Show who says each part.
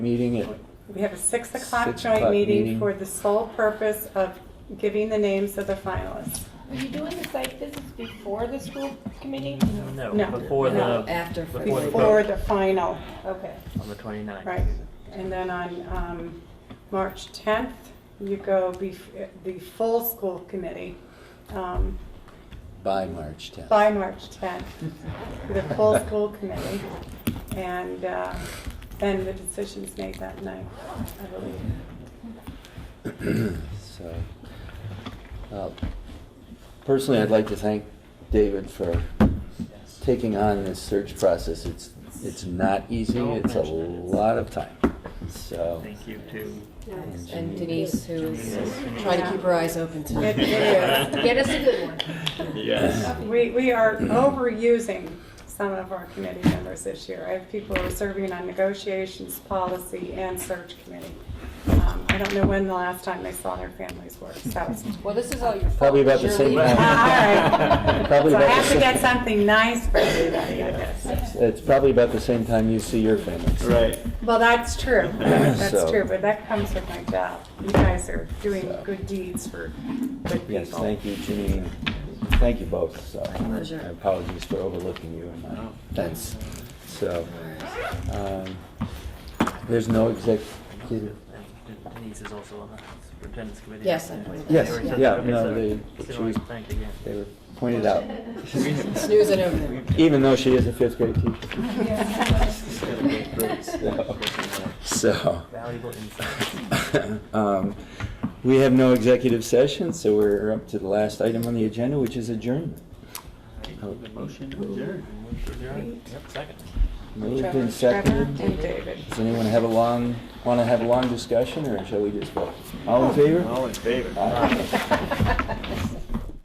Speaker 1: meeting at,
Speaker 2: We have a six o'clock
Speaker 1: Six
Speaker 2: joint
Speaker 1: o'clock
Speaker 2: meeting
Speaker 1: meeting.
Speaker 2: for the sole purpose of giving the names of the finalists.
Speaker 3: Were you doing the site visits before the school committee?
Speaker 4: No,
Speaker 2: No.
Speaker 4: before
Speaker 2: No.
Speaker 4: the,
Speaker 5: After.
Speaker 4: Before the
Speaker 2: Before the final, okay,
Speaker 4: on the 29th.
Speaker 2: right. And then on, um, March tenth, you go bef- the full school committee, um,
Speaker 1: by March 10th.
Speaker 2: by March tenth, the full school committee. And, uh, then the decision's made that night, I believe.
Speaker 1: So, uh, personally, I'd like to thank David for taking on this search process. It's, it's not easy,
Speaker 4: Don't
Speaker 1: it's a
Speaker 4: mention it.
Speaker 1: lot of time, so.
Speaker 4: Thank you to
Speaker 5: And Denise, who's
Speaker 4: Denise.
Speaker 5: trying to keep her eyes open to.
Speaker 2: It- it is.
Speaker 5: Get us a good one.
Speaker 4: Yes.
Speaker 2: We, we are overusing some of our committee members this year. I have people who are serving on negotiations, policy, and search committee. Um, I don't know when the last time they saw their families work, so.
Speaker 5: Well, this is all your fault.
Speaker 1: Probably about the
Speaker 5: You're
Speaker 1: same
Speaker 5: leaving.
Speaker 2: All right.
Speaker 1: Probably
Speaker 2: So I
Speaker 1: about
Speaker 2: have
Speaker 1: the
Speaker 2: to get
Speaker 1: same-
Speaker 2: something nice for everybody, I guess.
Speaker 1: It's probably about the same time you see your families.
Speaker 6: Right.
Speaker 2: Well, that's true. That's
Speaker 1: So-
Speaker 2: true, but that comes with my job. You guys are doing
Speaker 1: So.
Speaker 2: good deeds for good people.
Speaker 1: Yes, thank you, Janine. Thank you both, so.
Speaker 5: pleasure.
Speaker 1: I Apologies for overlooking you and my thanks. So, um, there's no executive
Speaker 4: Denise is also on the superintendent's committee.
Speaker 5: Yes, I pointed that
Speaker 1: Yes,
Speaker 4: They were
Speaker 5: out.
Speaker 4: just-
Speaker 1: yeah,
Speaker 4: okay,
Speaker 1: no,
Speaker 4: so
Speaker 1: they,
Speaker 4: still
Speaker 1: she
Speaker 4: want
Speaker 1: was,
Speaker 4: to thank again.
Speaker 1: they were pointed out,
Speaker 5: Snooze it over there.
Speaker 1: even though she is a fifth grade teacher. So,
Speaker 4: Valuable insight.
Speaker 1: um, we have no executive session, so we're up to the last item on the agenda, which is adjournment.
Speaker 6: Motion adjourned.
Speaker 4: Yep, second.
Speaker 1: Moved
Speaker 2: Trevor,
Speaker 1: and
Speaker 2: Trevor,
Speaker 1: seconded.
Speaker 2: and David.
Speaker 1: Does anyone have a long, want to have a long discussion, or shall we just vote? All in favor?
Speaker 6: All in favor?
Speaker 1: Aye.